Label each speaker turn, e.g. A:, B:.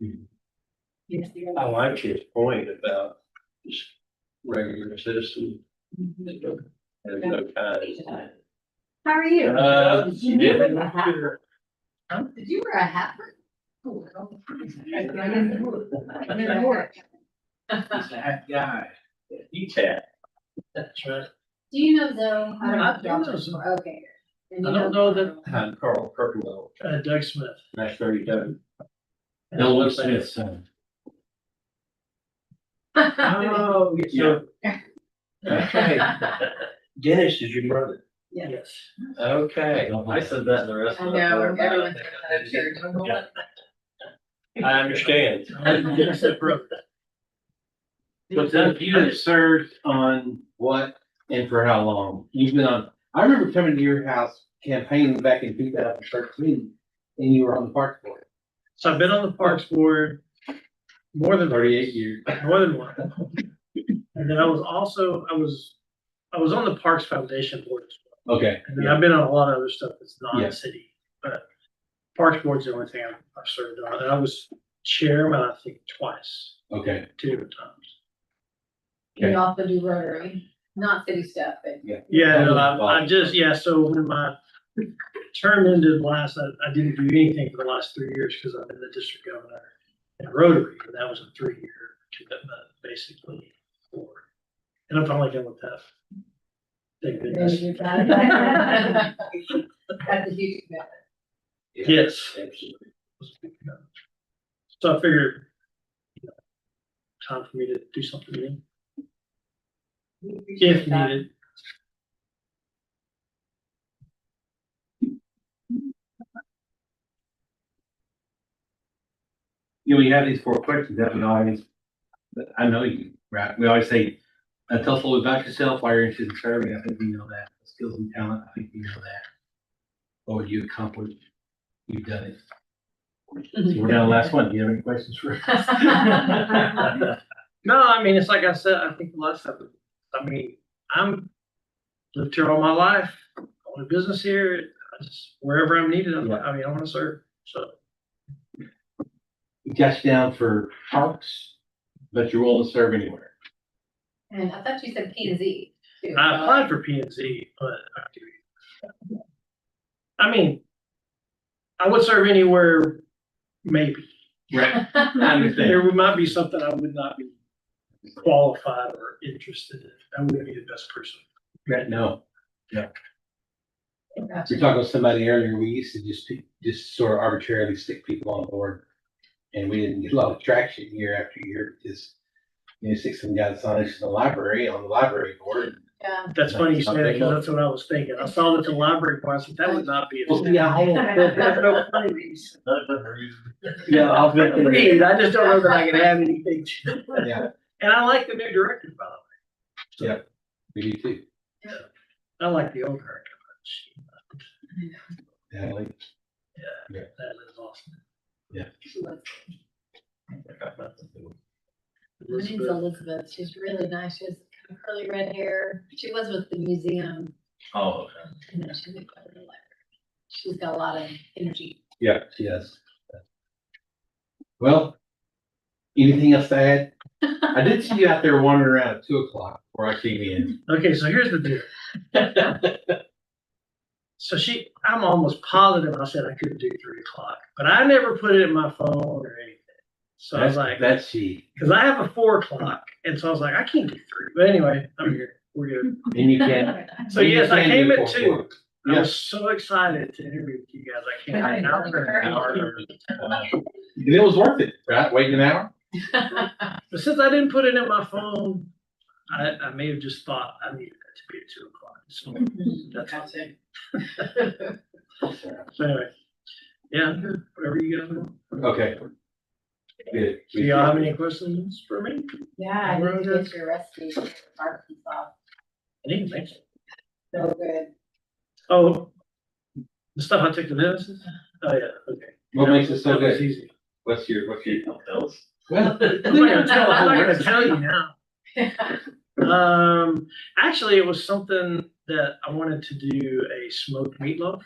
A: Yes, you're
B: I
A: right.
B: like his point about just regular citizens and no kind.
A: How are you?
B: Uh,
A: Did you
B: yeah.
A: wear a hat? Huh? Did you wear a hat? Oh, well. I didn't know. I didn't know.
C: That guy.
B: He's hat. That's right.
A: Do you know though?
C: I don't know.
A: Okay. And
C: I
A: you
C: don't know that-
B: Behind Carl Kirkendall,
C: Uh, Doug Smith.
B: that's thirty-seven.
D: Bill was his son.
B: Oh,
C: Yeah.
B: That's right. Dennis is your brother.
A: Yeah.
C: Yes.
B: Okay, I said that in the rest
A: I
B: of.
A: know,
B: the-
A: everyone's got that shirt.
B: Yeah. I understand.
C: Yes, that brother.
B: But then you had served on what and for how long? You've been on, I remember coming to your house campaigning back in two thousand thirteen and you were on the park board,
C: So I've been on the Parks Board more than
B: thirty-eight years.
C: More than one. And then I was also, I was, I was on the Parks Foundation Board as well.
B: Okay.
C: And then I've been on a lot of other stuff that's
B: Yeah.
C: non-city, but Parks Board's the only thing I've I've served on. And I was chairman, I think, twice,
B: Okay.
C: two different times.
A: You also do Rotary, not city stuff, but.
C: Yeah, no, I, I just, yeah, so when my term ended last, I, I didn't do anything for the last three years because I've been the district governor in Rotary. And that was a three-year commitment, basically. for- And I'm finally done with that. Thank goodness.
A: That's a huge commitment.
C: Yes.
B: Absolutely.
C: So I figured you know, time for me to do something new,
A: We appreciate
C: if
A: that.
C: needed.
D: You know, we have these four questions that we always, that I know you, right? We always say, uh, tell us a little about yourself, why you're interested in serving. I think we know that. Skills and talent, I think we know that. What would you accomplish? You've done it. So We're down to the last one. Do you have any questions for?
C: No, I mean, it's like I said, I think the last time, I mean, I'm lived here all my life, own a business here, I just, wherever I'm needed, I'm, I mean, I want to serve, so.
D: You got you down for parks, but you're willing to serve anywhere.
A: And I thought you said P and Z. too.
C: I applied for P and Z, but I do. I mean, I would serve anywhere, maybe.
D: Right. I understand.
C: There might be something I would not be qualified or interested in. I wouldn't be the best person.
D: Right, no.
A: Gotcha.
D: We were talking to somebody earlier, we used to just, just sort of arbitrarily stick people on board. And we didn't get a lot of traction year after year, because you know, stick some guys on us in the library, on the library board.
A: Yeah.
C: That's funny you say that, because that's what I was thinking. I saw that the library part, that would not be. a
D: Well, see, I
C: There's
D: had-
C: no funny reason.
D: Yeah, I was gonna say-
C: Agreed. I just don't know that I can add anything. to-
D: yeah,
C: And I like the new director, by the way.
D: Yeah. we do too.
C: I like the old director. but she- uh,
D: Yeah, like,
C: That is awesome.
A: My name's Elizabeth. She's really nice. She has kind of curly red hair. She was with the museum
B: Oh, okay.
A: and then she moved over to the library. She's got a lot of energy.
D: Yeah, she does. Well, anything else to add? I did see you out there wandering around at two o'clock before I came in.
C: Okay, so here's the deal. So she, I'm almost positive I said I couldn't do three o'clock, but I never put it in my phone or anything. So I was like,
D: That's she,
C: because I have a four o'clock, and so I was like, I can't do three. But anyway, I'm here. We're good.
D: and you can.
C: So yes,
D: you
C: I
D: can
C: came
D: do
C: at
D: four
C: two.
D: o'clock.
C: I
D: Yes.
C: was so excited to interview with you guys. I came
A: Right.
C: an hour, an hour.
D: And it was worth it, right? Waiting an hour?
C: But since I didn't put it in my phone, I, I may have just thought I needed it to be at two o'clock. So,
A: That's it.
C: so anyway, yeah, I'm here, whatever you guys want.
D: Okay. Good.
C: Do y'all have any questions for me?
A: Yeah, I need to get your recipe for Arkansas.
C: I didn't think so.
A: So good.
C: Oh, the stuff I took to Madison? Oh, yeah, okay.
D: What makes it so
C: That was
D: good?
C: easy.
D: What's your, what's your? Well,
C: I'm not gonna tell, I'm not gonna tell you now. Um, actually, it was something that I wanted to do a smoked meatloaf.